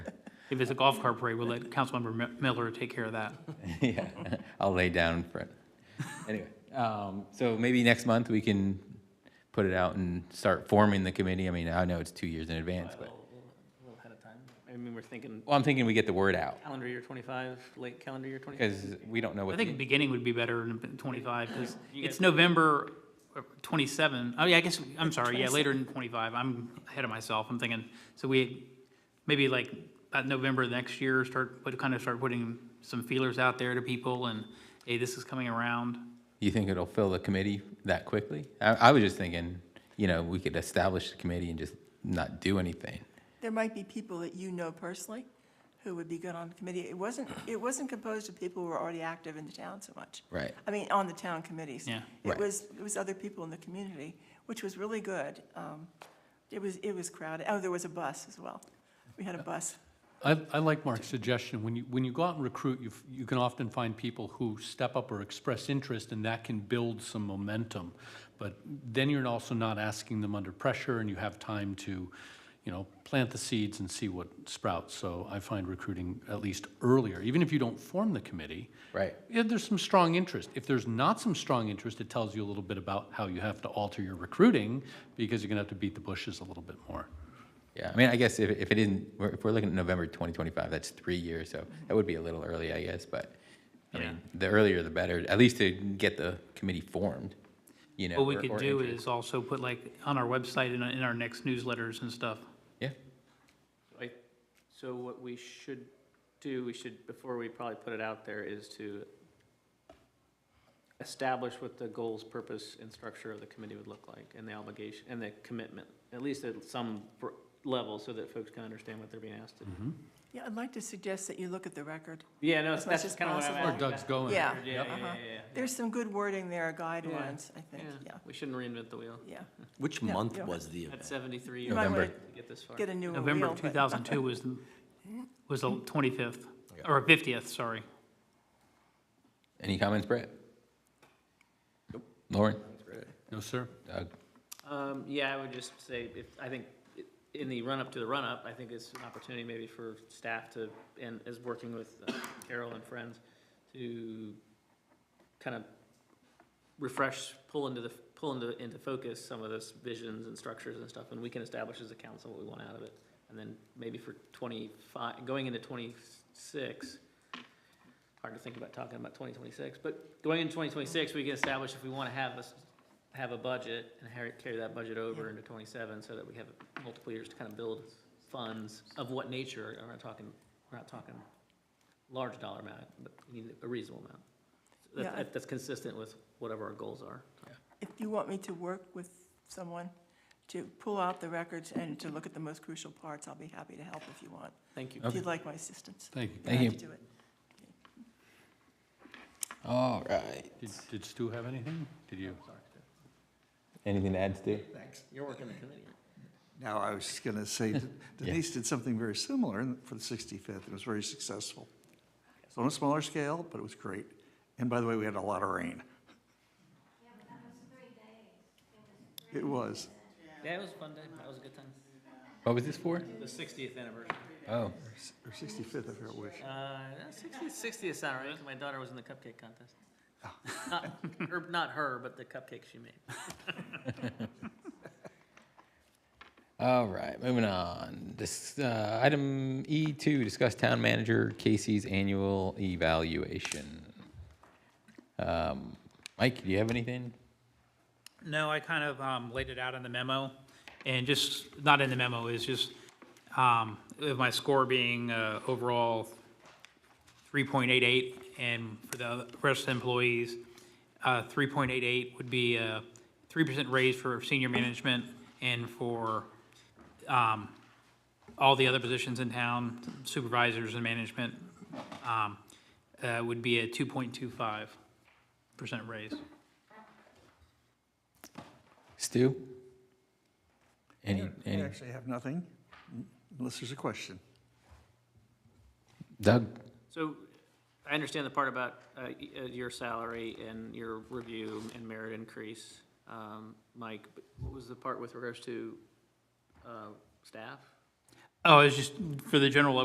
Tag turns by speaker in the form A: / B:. A: If it's a golf cart parade, we'll let Councilmember Mi- Miller take care of that.
B: Yeah, I'll lay down in front. Anyway, um, so maybe next month we can put it out and start forming the committee. I mean, I know it's two years in advance, but,
C: A little ahead of time. I mean, we're thinking
B: well, I'm thinking we get the word out,
C: calendar year twenty-five, late calendar year twenty-five.
B: because we don't know
A: I
B: what.
A: think
B: the-
A: beginning would be better in twenty-five, because
C: You
A: it's
C: guys-
A: November uh, twenty-seven. Oh, yeah, I guess, I'm sorry, yeah, later in twenty-five. I'm ahead of myself. I'm thinking, so we, maybe like about November next year, start, put kind of start putting some feelers out there to people and, hey, this is coming around.
B: You think it'll fill the committee that quickly? I, I was just thinking, you know, we could establish the committee and just not do anything.
D: There might be people that you know personally who would be good on the committee. It wasn't, it wasn't composed of people who were already active in the town so much.
B: Right.
D: I mean, on the town committees.
A: Yeah.
B: Right.
D: It was, it was other people in the community, which was really good. Um, It was, it was crowded. Oh, there was a bus as well. We had a bus.
E: I, I like Mark's suggestion. When you, when you go out and recruit, you, you can often find people who step up or express interest, and that can build some momentum. But then you're also not asking them under pressure, and you have time to, you know, plant the seeds and see what sprouts. So I find recruiting at least earlier, even if you don't form the committee.
B: Right.
E: Yeah, there's some strong interest. If there's not some strong interest, it tells you a little bit about how you have to alter your recruiting, because you're gonna have to beat the bushes a little bit more.
B: Yeah, I mean, I guess if, if it isn't, we're- if we're looking at November 2025, that's three years, so that would be a little early, I guess, but, I
A: Yeah.
B: mean, the earlier the better, at least to get the committee formed, you know.
A: What we
B: or-
A: could
B: or
A: do
B: interest.
A: is also put like on our website and in our next newsletters and stuff.
B: Yeah,
C: I- So what we should do, we should, before we probably put it out there, is to establish what the goals, purpose, and structure of the committee would look like, and the obligation, and the commitment, at least at some br- level, so that folks can understand what they're being asked to do.
D: Yeah, I'd like to suggest that you look at the record.
C: Yeah, no,
D: As much
C: that's
D: as
C: kind of what I'm
D: possible.
E: Where
C: asking.
E: Doug's going.
D: Yeah.
C: Yeah, yeah,
D: Uh-huh.
C: yeah, yeah, yeah.
D: There's some good wording there, guidelines, I think,
C: Yeah,
D: yeah,
C: we shouldn't reinvent the wheel.
D: yeah.
F: Which
D: Yeah,
F: month
D: yeah.
F: was the
C: At
F: event?
C: seventy-three,
D: You
C: you
D: might
B: November.
D: want to
C: get this far.
D: get a newer wheel.
A: November of
D: but-
A: 2002 was, the was the 25th, or 50th, sorry.
B: any comments, Brett? Lauren?
E: No, sir?
B: Doug?
C: Um, yeah, I would just say, if, I think, i- in the run-up to the run-up, I think it's an opportunity maybe for staff to, and is working with uh, Carol and friends, to kind of refresh, pull into the, pull into, into focus some of those visions and structures and stuff, and we can establish as a council what we want out of it. And then maybe for twenty-five, going into twenty-six, hard to think about talking about twenty twenty-six, but going into twenty twenty-six, we can establish if we want to have us, have a budget and har- carry that budget over into twenty-seven so that we have multiple years to kind of build funds of what nature, we're not talking, we're not talking large dollar amount, but we need a reasonable amount. That-
D: Yeah, I-
C: That, that's consistent with whatever our goals are.
D: If you want me to work with someone to pull out the records and to look at the most crucial parts, I'll be happy to help if you want,
C: Thank you.
D: if you'd like my assistance.
E: Thank you.
D: I'd
B: Thank
D: have to do it.
B: All right.
E: Did, did Stu have anything? Did you?
B: Anything to add, Stu?
G: Thanks.
C: You're working the committee.
G: Now, I was just going to say that Denise did something very similar in- for the 65th. It was very successful. It's on a smaller scale, but it was great. And by the way, we had a lot of rain. It was.
C: Yeah, it was a fun day. That was a good time.
B: What was this for?
C: The sixtieth anniversary.
B: Oh,
G: Or 65th, I forgot which.
C: Uh, sixtieth, sixtieth sounded right. 'cause My daughter was in the cupcake contest. Ah. Not, her, not her, but the cupcake she made.
B: all right, moving on. This, uh, item E2, discuss town manager Casey's annual evaluation. Um, Mike, do you have anything?
A: No, I kind of um, laid it out in the memo, and just, not in the memo, it's just, um, with my score being uh, overall 3.88, and for the rest of the employees, uh, 3.88 would be a 3% raise for senior management and for um, all the other positions in town, supervisors and management, um, uh, would be a 2.25% raise.
B: Stu? Any,
G: I
B: any,
G: actually have nothing, unless there's a question.
B: Doug?
C: So I understand the part about uh, y- uh, your salary and your review and merit increase, um, Mike. but What was the part with regards to uh, staff?
A: Oh, it's just for the general